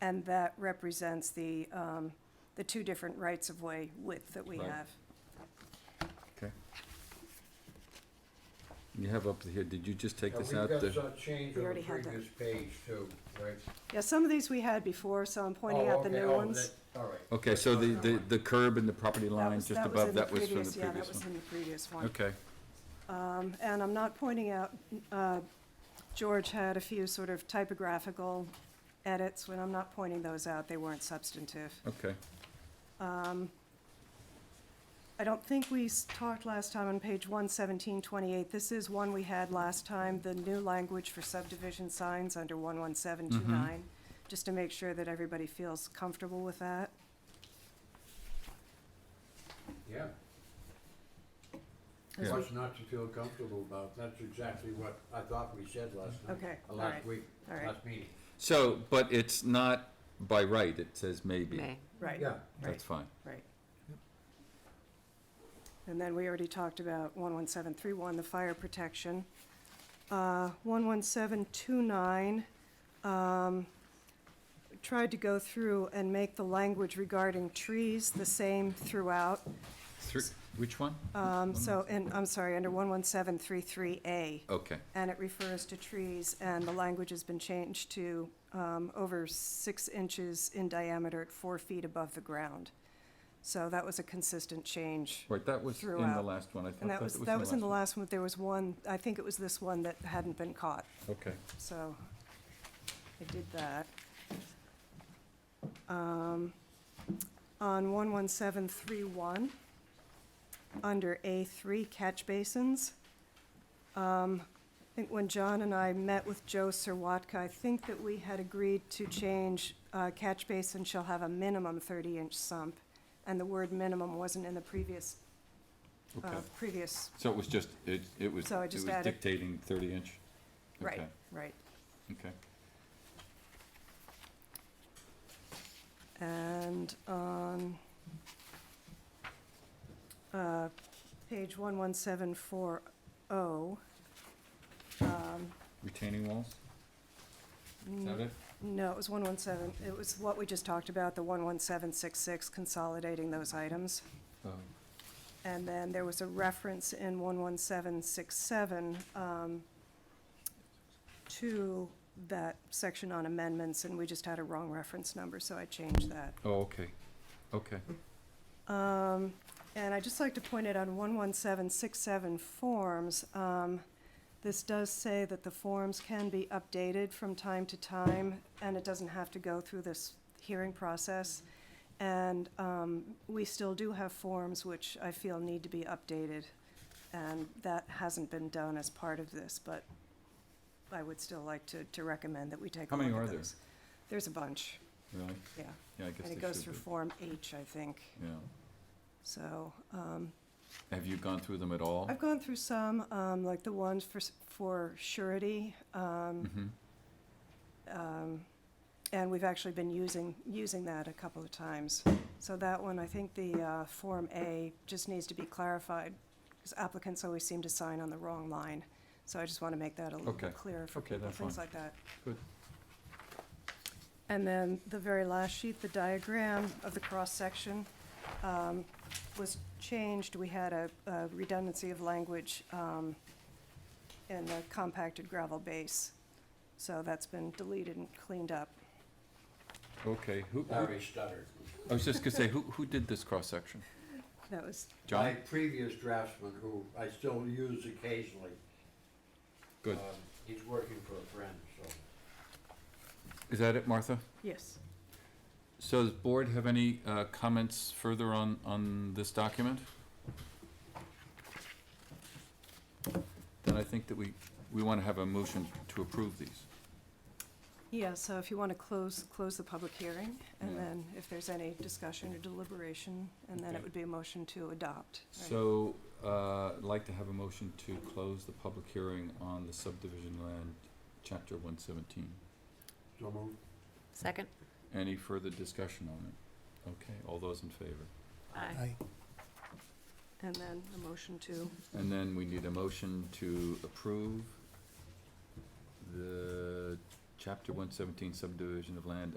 And that represents the, um, the two different rights-of-way width that we Right. have. Okay. You have up here, did you just take Yeah, this out? We've got the- some change We on the already had that. previous page too, right? Yeah, some of these we had before, so I'm pointing Oh, out the okay, new oh, ones. that- All right. Okay, so the, the, the curb and the property That line was- just that was above, in the that was from the Yeah, that previous was one? in the previous one. Okay, Um, And I'm not pointing out, uh, George had a few sort of typographical edits, when I'm not pointing those out, they weren't substantive. okay. I don't think we s- talked last time on page 11728. This is one we had last time, the new language for subdivision signs under 11729, just to make sure that everybody feels comfortable with that. Yeah. Yeah. What's not to feel comfortable about, that's exactly what I thought we said last night. Okay, uh, all Last right, week, all right. last meeting. So, but it's not by right, it says May. maybe. Right. Yeah, That's fine. Right. And then we already talked about 11731, the fire protection. Uh, 11729, um, tried to go through and make the language regarding trees the same throughout. Thr- Which one? Um, So, and, I'm sorry, under 11733A, Okay, and it refers to trees, and the language has been changed to um, over six inches in diameter at four feet above the ground. So that was a consistent change. right, that was in the Throughout. last one, I And thought that was, that was in the last one, but there was one, I think it was this one that hadn't been caught, one. Okay, so I did that. Um, On 11731, under A3 catch basins, um, I think when John and I met with Joe Sirwatka, I think that we had agreed to change, uh, catch basin shall have a minimum thirty-inch sump, and the word minimum wasn't in the previous, uh, okay. previous, So it was just, it, it was, So I it just was added- dictating thirty inch? right, Okay, right. Okay, And on uh, page one one seven four oh, retaining walls? Is Mm. that it? no, it was one one seven, it was what we just talked about, the one one seven six six, consolidating those items. Oh, And then there was a reference in 11767 um, to that section on amendments, and we just had a wrong reference number, so I changed that. Oh, okay, okay. Um, And I'd just like to point out on 11767 forms, um, this does say that the forms can be updated from time to time, and it doesn't have to go through this hearing process. And um, we still do have forms which I feel need to be updated, and that hasn't been done as part of this, but I would still like to, to recommend that we take a How look at many those. are there? There's a bunch, Really? yeah, Yeah, I guess and they it goes should through be. Form H, I think. Yeah. So, um, Have you gone through them at all? I've gone through some, um, like the ones for, s- for surety, um, Mhm. um, and we've actually been using, using that a couple of times. So that one, I think the, uh, Form A just needs to be clarified, because applicants always seem to sign on the wrong line. So I just want to make that a little Okay. bit clearer for Okay, people, that's things fine. like that. Good. And then the very last sheet, the diagram of the cross-section um, was changed. We had a a redundancy of language um, in the compacted gravel base. So that's been deleted and cleaned up. Okay, who, who- Larry stuttered. I was just gonna say, who, who did this cross-section? That was, My John? previous draftsman, who I still use occasionally. Good. um, He's working for a friend, so. Is that it, Martha? yes. So does board have any, uh, comments further on, on this document? Then I think that we, we wanna have a motion to approve these. Yeah, so if you want to close, close the public hearing, and Yeah. then if there's any discussion or deliberation, and then Okay. it would be a motion to adopt. right? So, uh, I'd like to have a motion to close the public hearing on the subdivision land, chapter one seventeen. So moved. Second? Any further discussion on it? Okay, all those in favor? Aye. And then a motion to, And then we need a motion to approve the chapter one seventeen subdivision of land